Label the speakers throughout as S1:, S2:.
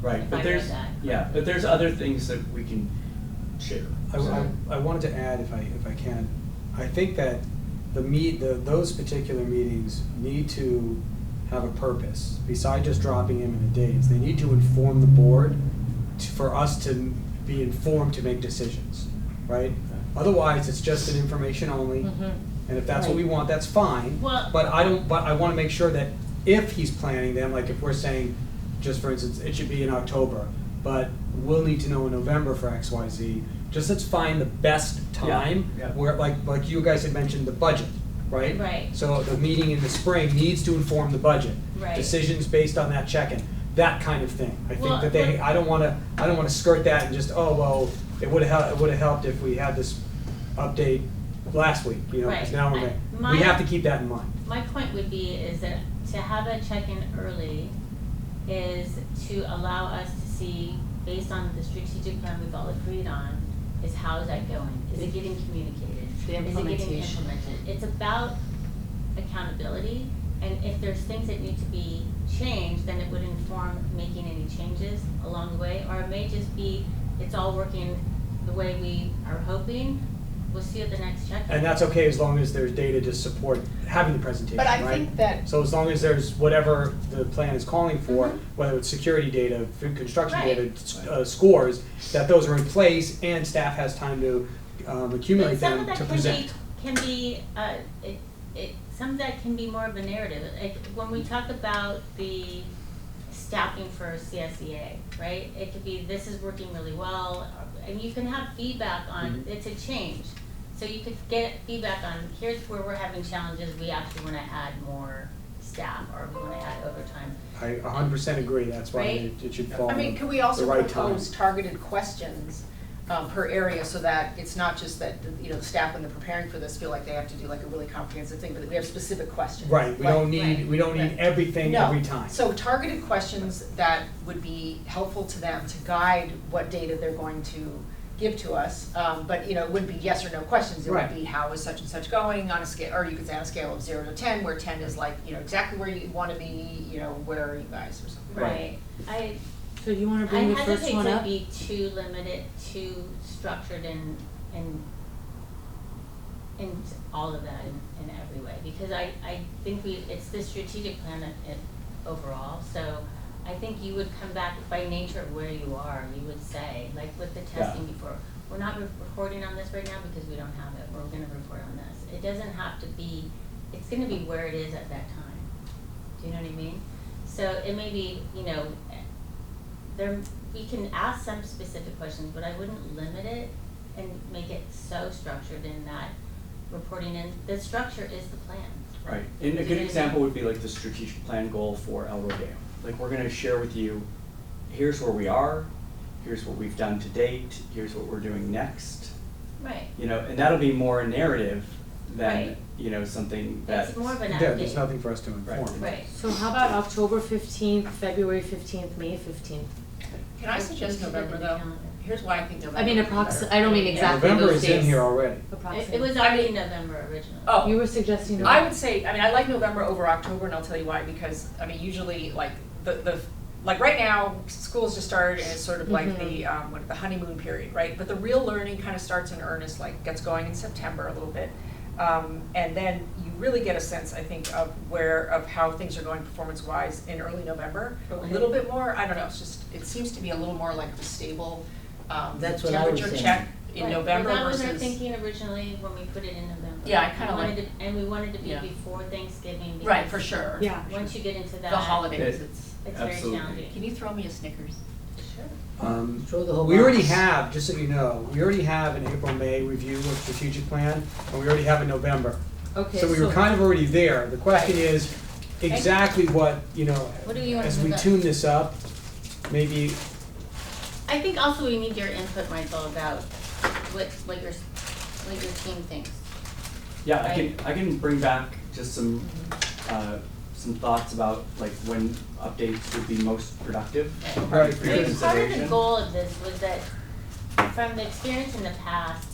S1: Right, but
S2: I read
S1: there's,
S2: that.
S1: yeah, but there's other things that we can share.
S3: I,
S1: so-
S3: I, I wanted to add, if I, if I can, I think that the meet, the, those particular meetings need to have a purpose, beside just dropping in the dates, they need to inform the board to, for us to be informed to make decisions, right? Otherwise, it's just an information only, and if that's what we
S4: Right.
S3: want, that's fine.
S2: Mm-hmm. Well-
S3: But I don't, but I wanna make sure that if he's planning them, like if we're saying, just for instance, it should be in October, but we'll need to know in November for X, Y, Z, just let's find the best time.
S1: Yeah, yeah.
S3: Where, like, like you guys had mentioned, the budget, right?
S2: Right.
S3: So the meeting in the spring needs to inform the budget.
S2: Right.
S3: Decisions based on that check-in, that kind of thing. I
S2: Well,
S3: think that they,
S2: but-
S3: I don't wanna, I don't wanna skirt that and just, oh, well, it would've hel- it would've helped if we had this update last week, you know, because
S2: Right.
S3: now we're
S2: I-
S3: gonna,
S2: my-
S3: we have to keep that in mind.
S2: My point would be is that to have a check-in early is to allow us to see, based on the strategic plan we've all agreed on, is how is that going? Is it getting communicated?
S4: The
S2: Is it getting
S4: implementation.
S2: implemented? It's about accountability, and if there's things that need to be changed, then it would inform making any changes along the way, or it may just be, it's all working the way we are hoping, we'll see at the next check-in.
S3: And that's okay as long as there's data to support having the presentation,
S4: But
S3: right?
S4: I think that,
S3: So as long as there's whatever the plan is calling for,
S2: Mhm.
S3: whether it's security data, food construction
S2: Right.
S3: data, s- uh, scores, that those are in place and staff has time to um,
S2: But
S3: accumulate
S2: some
S3: them
S2: of that
S3: to
S2: can be,
S3: present.
S2: can be, uh, it, it, some of that can be more of a narrative, like, when we talk about the staffing for CSEA, right? It could be, this is working really well, uh, and you can have feedback on,
S3: Mm-hmm.
S2: it's a change. So you could get feedback on, here's where we're having challenges, we actually wanna add more staff, or we wanna add overtime.
S3: I a hundred percent agree, that's why
S2: Right.
S3: it it should fall
S4: I
S3: in
S4: mean,
S3: the
S4: can we
S3: Um, the
S4: also
S3: right time.
S4: propose targeted questions um, per area so that it's not just that, you know, the staff when they're preparing for this feel like they have to do like a really comprehensive thing, but that we have specific questions.
S3: Right, we
S4: Like-
S3: don't need,
S2: right,
S3: we don't need
S4: right.
S3: everything
S4: No.
S3: every time.
S4: So targeted questions that would be helpful to them to guide what data they're going to give to us. Um, but, you know, it wouldn't be yes or no questions, it
S3: Right.
S4: would be how is such and such going on a scale, or you could say on a scale of zero to ten, where ten is like, you know, exactly where you wanna be, you know, where are you guys or something.
S2: Right. I,
S5: So you wanna
S2: I
S5: bring the first
S2: hesitate
S5: one
S2: to
S5: up?
S2: be too limited, too structured in, in, in all of that in, in every way, because I, I think we, it's the strategic plan of it overall, so I think you would come back by nature of where you are, you would say, like with the
S1: Yeah.
S2: testing before, we're not re- reporting on this right now because we don't have it, we're gonna report on this. It doesn't have to be, it's gonna be where it is at that time, do you know what I mean? So it may be, you know, there, we can ask some specific questions, but I wouldn't limit it and make it so structured in that reporting in, the structure is the plan.
S1: Right, and a good example would be like the strategic plan goal for El Rodeo. Like, we're gonna share with you, here's where we are, here's what we've done to date, here's what we're doing next.
S2: Right.
S1: You know, and that'll be more a narrative than,
S2: Right.
S1: you know, something that's.
S2: It's more of an update.
S3: Yeah, there's nothing for us to
S1: Right.
S3: inform.
S2: Right.
S5: So how about October fifteenth, February fifteenth, May fifteenth?
S4: Can I suggest November though? Here's why I think November.
S5: I mean,
S4: would be better.
S5: approx, I don't mean
S2: Yeah.
S5: exactly
S3: November
S5: those
S3: is
S5: days.
S3: in here already.
S2: It,
S5: Approximately.
S2: it was already November originally.
S4: Oh,
S5: You were suggesting.
S4: I would say, I mean, I like November over October, and I'll tell you why, because, I mean, usually, like, the, the, like, right now, school's just started, and it's sort of like the,
S2: Mm-hmm.
S4: um, what, the honeymoon period, right? But the real learning kind of starts in earnest, like, gets going in September a little bit. Um, and then you really get a sense, I think, of where, of how things are going performance-wise in early November, a
S2: Okay.
S4: little bit more, I don't know, it's just, it seems to be a little more like a stable, um,
S6: That's what I was
S4: temperature
S6: saying.
S4: check in
S2: Right.
S4: November
S2: Well, that was
S4: versus.
S2: our thinking originally when we put it in November.
S4: Yeah, I
S2: We
S4: kinda
S2: wanted
S4: like-
S2: it- And we wanted to be
S4: Yeah.
S2: before Thanksgiving.
S4: Right, for
S2: because
S4: sure.
S5: Yeah.
S2: Once you get into that.
S4: The holidays,
S1: Yeah.
S4: it's.
S2: It's very
S1: Absolutely.
S2: challenging.
S4: Can you throw me a Snickers?
S3: Um,
S6: Throw the whole
S3: We already
S6: box.
S3: have, just so you know, we already have an April-May review of strategic plan, and we already have a November.
S5: Okay,
S3: So we were kind of already there. The question
S4: Right.
S3: is exactly what, you know,
S2: What do you want
S3: as
S2: to
S3: we
S2: do?
S3: tune this up, maybe,
S2: I think also we need your input, Michael, about what, what your, what your team thinks.
S1: Yeah, I can, I can bring back just some,
S2: Mm-hmm.
S1: uh, some thoughts about like when updates would be most productive.
S2: Right.
S3: Right,
S1: For
S2: I
S1: your
S2: mean, part of the
S1: consideration.
S2: goal of this was that, from the experience in the past,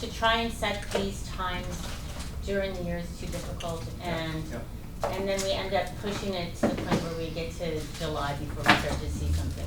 S2: to try and set these times during the year is too difficult and,
S1: yeah.
S2: and then we end up pushing it to the point where we get to July before we start to see something.